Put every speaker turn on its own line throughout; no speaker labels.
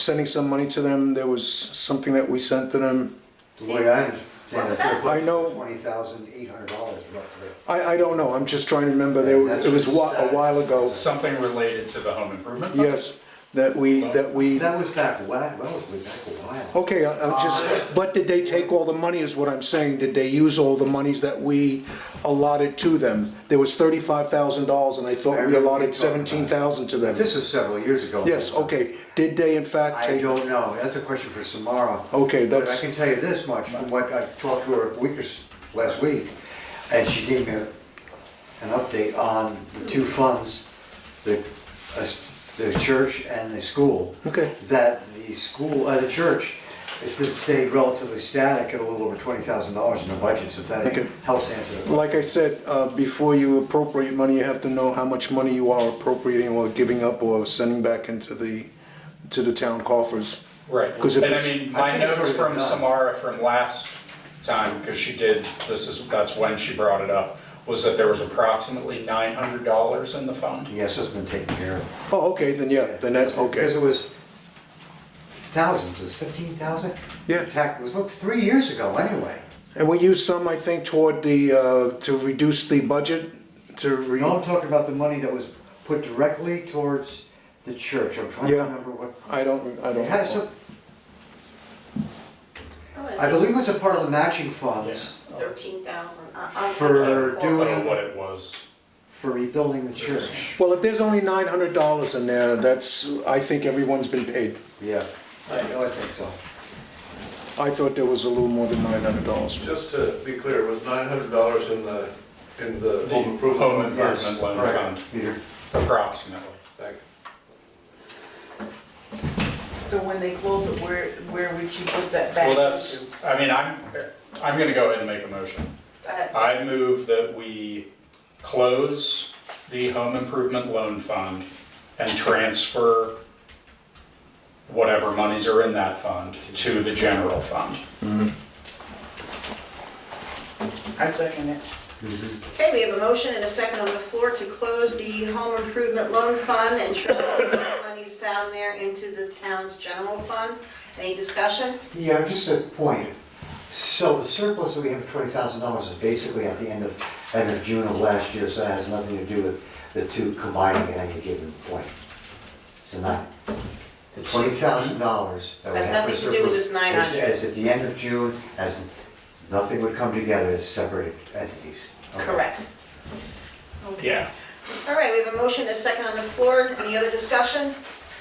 sending some money to them. There was something that we sent to them.
The way I understand
What
it,
was
they're
that?
I know-
putting twenty thousand eight hundred dollars roughly.
I, I don't know. I'm just trying to remember. There, it was wa- a while ago.
Something related to the home improvement? fund?
Yes, that we, that we,
That was back, wa- that was way back a while.
okay, I- I'm
Uh,
just, but did they take all the money is what I'm saying. Did they use all the monies that we allotted to them? There was thirty-five thousand dollars and I thought we allotted seventeen thousand to them.
This is several years ago.
Yes, okay. Did they in fact
I
take?
don't know, that's a question for Samara.
Okay,
But I
that's-
can tell you this much, from what I talked to her a week or s- last week, and she gave me a- an update on the two funds, the, uh, s- the church and the school.
Okay.
That the school, uh, the church, has been stayed relatively static at a little over twenty thousand dollars in the budget, so if
Okay.
that helps answer the question.
Like I said, uh, before you appropriate money, you have to know how much money you are appropriating or giving up or sending back into the, to the town coffers.
Right,
'Cause if
and I
it's-
mean, my
I think it's
notes
already
from
done.
Samara from last time, because she did, this is, that's when she brought it up, was that there was approximately nine hundred dollars in the fund.
Yes, it's been taken care of.
Oh, okay, then yeah, then that,
Because
okay.
it was thousands, it was fifteen thousand?
Yeah.
Tax, it was, look, three years ago anyway.
And we use some, I think, toward the, uh, to reduce the budget, to re,
No, I'm talking about the money that was put directly towards the church, I'm trying to
Yeah.
remember what.
I don't, I don't.
It has some,
was
I
it?
believe it was a part of the matching funds
Thirteen thousand.
For
I don't
doing-
know what it was.
for rebuilding the church.
Well, if there's only nine hundred dollars in there, that's, I think everyone's been paid.
Yeah, I, I think so.
I thought there was a little more than nine hundred dollars.
Just to be clear, it was nine hundred dollars in the, in the
The
home
home
improvement?
Yes,
improvement loan
right,
fund,
Peter.
approximately.
Thank you.
So when they close it, where, where would you put that back?
Well, that's, I mean, I'm, I'm gonna go ahead and make a motion.
Uh,
I move that we close the home improvement loan fund and transfer whatever monies are in that fund to the general fund.
I second it.
Okay, we have a motion and a second on the floor to close the home improvement loan fund and transfer the monies down there into the town's general fund. Any discussion?
Yeah, just a point. So the surplus that we have, twenty thousand dollars, is basically at the end of, end of June of last year, so it has nothing to do with the two combining at any given point. So not, the twenty thousand dollars that we
Has
have for
nothing to do with
surplus.
this nine
is-
hundred.
Is at the end of June, as nothing would come together as separate entities. Okay.
Correct.
Yeah.
All right, we have a motion and a second on the floor. Any other discussion?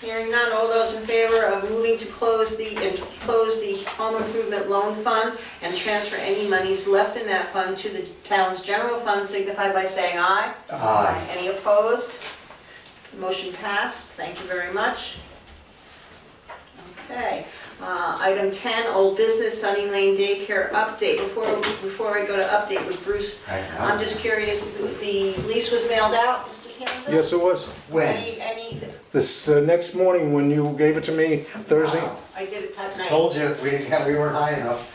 Hearing none, all those in favor of moving to close the, and to close the home improvement loan fund and transfer any monies left in that fund to the town's general fund signify by saying aye.
Aye.
Any opposed? Motion passed, thank you very much. Okay, uh, item 10, old business, Sunny Lane Daycare update. Before, before I go to update with Bruce,
I know.
I'm just curious, the the lease was mailed out, Mr. Tanza?
Yes, it was.
When?
Any, any,
This, uh, next morning when you gave it to me, Thursday,
I did it that night.
Told you, we didn't have, we weren't high enough.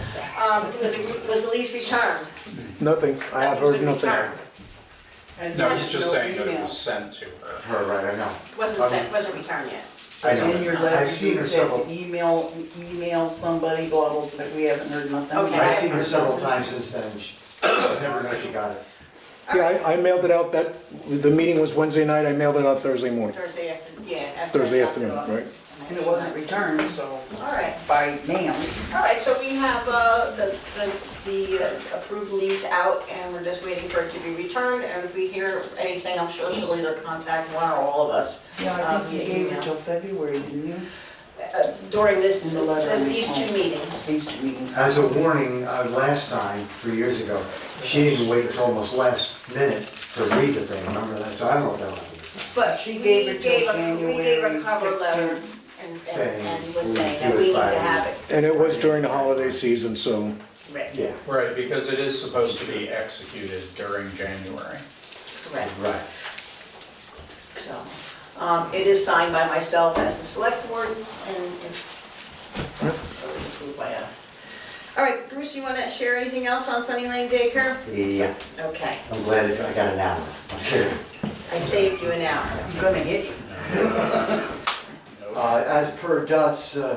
Um, Was it- was the lease returned?
nothing. I have heard nothing.
Returned.
No, he's just saying that it was sent to her.
Her, right, I know.
Wasn't sent, wasn't returned yet.
I know.
In your letter,
I've seen her
you said
several,
to email, email somebody, blah, blah, but we haven't heard nothing.
Okay.
I've seen her several times since then, she, never know she got it.
Yeah, I, I mailed it out that, the meeting was Wednesday night, I mailed it out Thursday morning,
Thursday afternoon, yeah. after I
Thursday
dropped it
afternoon,
off.
right?
And it wasn't returned, so
All right.
by mail.
All right, so we have uh, the the- the uh, approved lease out, and we're just waiting for it to be returned, and if we hear anything, I'm sure she'll either contact one or all of us.
Yeah, I
um,
think you
via
uh, gave it
email.
till February, didn't you?
Uh, During this,
In the letter.
this- these two meetings.
These two meetings.
As a warning, uh, last time, three years ago, she didn't wait until almost last minute to read the thing, remember that? So I don't know if that was.
But
She
we
gave it till
gave a- We gave a
January
cover letter
16th.
and
Saying
and- and was
we
saying
do
that
it
we need to
by-
have it.
And it was during the holiday season, so,
Right.
Yeah,
Right, because it is supposed to be executed during January.
Correct.
right.
So, um, It is signed by myself as the select board, and if it was approved by us. All right, Bruce, you want to share anything else on Sunny Lane Daycare?
Yeah,
Okay,
I'm glad I got an hour. I'm kidding.
I saved you an hour.
I'm gonna hit you.
No
Uh, As per Dot's uh,